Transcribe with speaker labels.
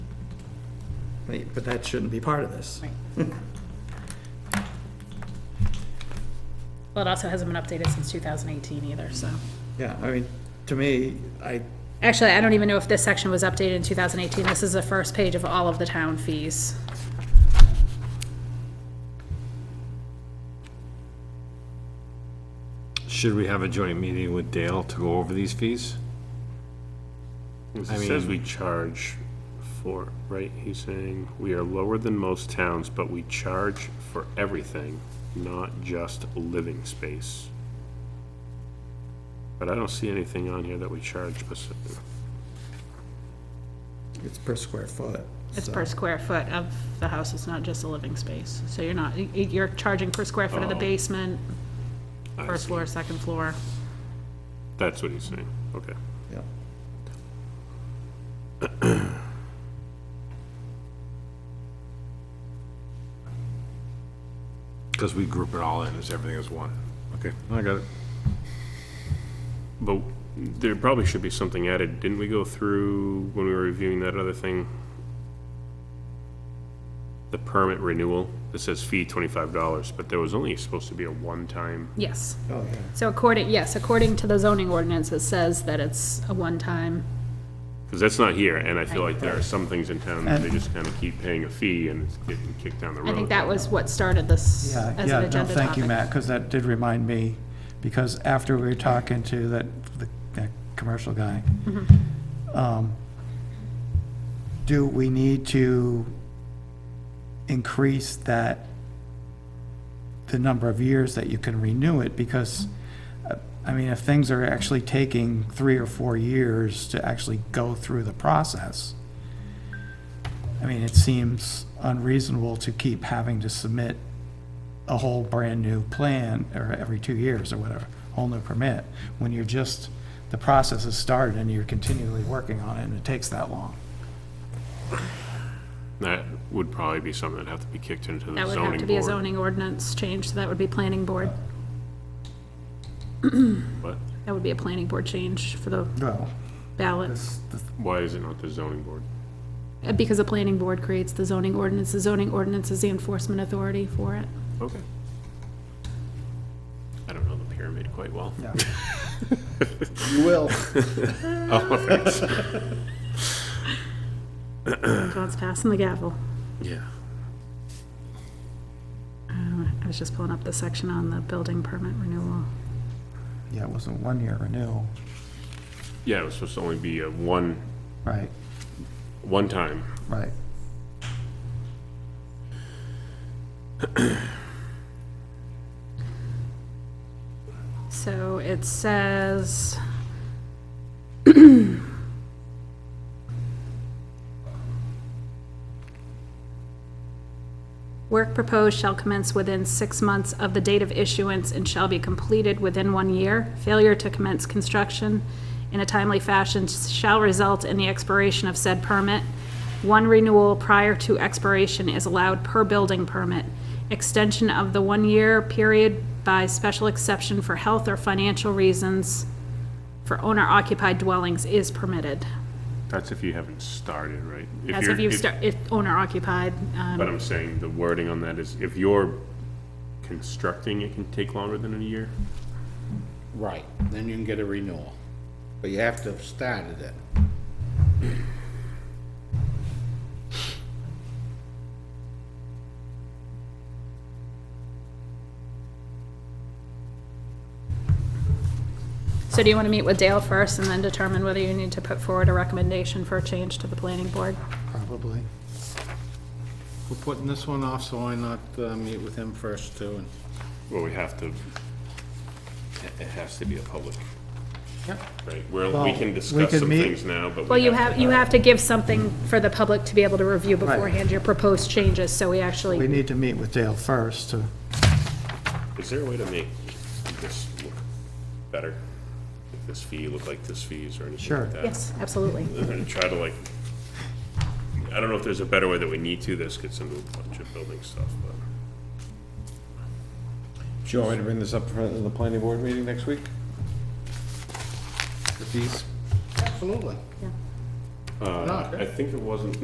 Speaker 1: But that shouldn't be part of this.
Speaker 2: Well, it also hasn't been updated since 2018 either, so.
Speaker 1: Yeah, I mean, to me, I,
Speaker 2: Actually, I don't even know if this section was updated in 2018. This is the first page of all of the town fees.
Speaker 3: Should we have a joint meeting with Dale to go over these fees?
Speaker 4: It
Speaker 3: I
Speaker 4: says we
Speaker 3: mean-
Speaker 4: charge for, right? He's saying, we are lower than most towns, but we charge for everything, not just living space. But I don't see anything on here that we charge specifically.
Speaker 1: it's per square foot.
Speaker 2: It's
Speaker 1: so-
Speaker 2: per square foot of the house, it's not just a living space. So you're not, y- y- you're charging per square foot of the
Speaker 4: Oh.
Speaker 2: basement,
Speaker 4: I
Speaker 2: first
Speaker 4: see.
Speaker 2: floor, second floor.
Speaker 4: That's what he's saying, okay.
Speaker 1: Yeah.
Speaker 3: Because we group it all in, as everything is one. Okay, I got it.
Speaker 4: But there probably should be something added. Didn't we go through when we were reviewing that other thing? The permit renewal, it says fee twenty-five dollars, but there was only supposed to be a one-time
Speaker 2: Yes.
Speaker 1: Oh, yeah.
Speaker 2: So according, yes, according to the zoning ordinance, it says that it's a one-time.
Speaker 4: Because that's not here, and I feel like there are some things in town that they just kind of keep paying a fee and it's getting kicked down the road.
Speaker 2: I think that was what started this
Speaker 5: Yeah,
Speaker 2: as
Speaker 5: yeah,
Speaker 2: an
Speaker 5: no,
Speaker 2: agenda
Speaker 5: Thank you,
Speaker 2: topic.
Speaker 5: Matt, because that did remind me, because after we were talking to that, the, that commercial guy,
Speaker 2: Mm-hmm.
Speaker 5: um, do we need to increase that, the number of years that you can renew it? Because, uh, I mean, if things are actually taking three or four years to actually go through the process, I mean, it seems unreasonable to keep having to submit a whole brand-new plan, or every two years or whatever, whole new permit, when you're just, the process has started and you're continually working on it, and it takes that long.
Speaker 4: That would probably be something that'd have to be kicked into the
Speaker 2: That would have to
Speaker 4: zoning
Speaker 2: be a
Speaker 4: board.
Speaker 2: zoning ordinance change, so that would be planning board.
Speaker 4: But
Speaker 2: That would be a planning board change for the
Speaker 5: Well,
Speaker 2: ballot.
Speaker 4: why is it not the zoning board?
Speaker 2: Uh, Because the planning board creates the zoning ordinance, the zoning ordinance is the enforcement authority for it.
Speaker 4: Okay. I don't know the pyramid quite well.
Speaker 5: yeah.
Speaker 6: You will.
Speaker 4: Oh, thanks.
Speaker 2: John's passing the gavel.
Speaker 4: Yeah.
Speaker 2: Uh, I was just pulling up the section on the building permit renewal.
Speaker 5: Yeah, it was a one-year renewal,
Speaker 4: Yeah, it was supposed to only be a one,
Speaker 5: right,
Speaker 4: one time.
Speaker 5: right.
Speaker 2: So it says. Work proposed shall commence within six months of the date of issuance and shall be completed within one year. Failure to commence construction in a timely fashion shall result in the expiration of said permit. One renewal prior to expiration is allowed per building permit. Extension of the one-year period by special exception for health or financial reasons for owner-occupied dwellings is permitted.
Speaker 4: That's if you haven't started, right?
Speaker 2: As
Speaker 4: you're-
Speaker 2: if you start, if owner-occupied,
Speaker 4: But
Speaker 2: um,
Speaker 4: I'm saying the wording on that is if you're constructing, it can take longer than a year?
Speaker 6: Right, then you can get a renewal, but you have to have started it.
Speaker 2: so do you want to meet with Dale first and then determine whether you need to put forward a recommendation for a change to the planning board?
Speaker 5: Probably.
Speaker 6: We're putting this one off, so why not uh, meet with him first too? and-
Speaker 4: Well, we have to, it- it has to be a public,
Speaker 6: Yep.
Speaker 4: right? Where we
Speaker 5: Well,
Speaker 4: can
Speaker 5: we
Speaker 4: discuss
Speaker 5: could
Speaker 4: some
Speaker 5: meet-
Speaker 4: things now, but we
Speaker 2: Well, you
Speaker 4: to-
Speaker 2: have, you have to give something for the public to be able to review beforehand your proposed changes, so we
Speaker 5: We
Speaker 2: actually,
Speaker 5: need to meet with Dale first to,
Speaker 4: Is there a way to make this look better? Like this fee look like this fees or anything
Speaker 5: Sure.
Speaker 4: like that?
Speaker 2: yes, absolutely.
Speaker 4: And try to like, I don't know if there's a better way that we need to. This gets into a bunch of building stuff, but
Speaker 7: Do you want me to bring this up for the planning board meeting next week? The fees?
Speaker 6: Absolutely.
Speaker 2: Yeah.
Speaker 4: uh, I think it wasn't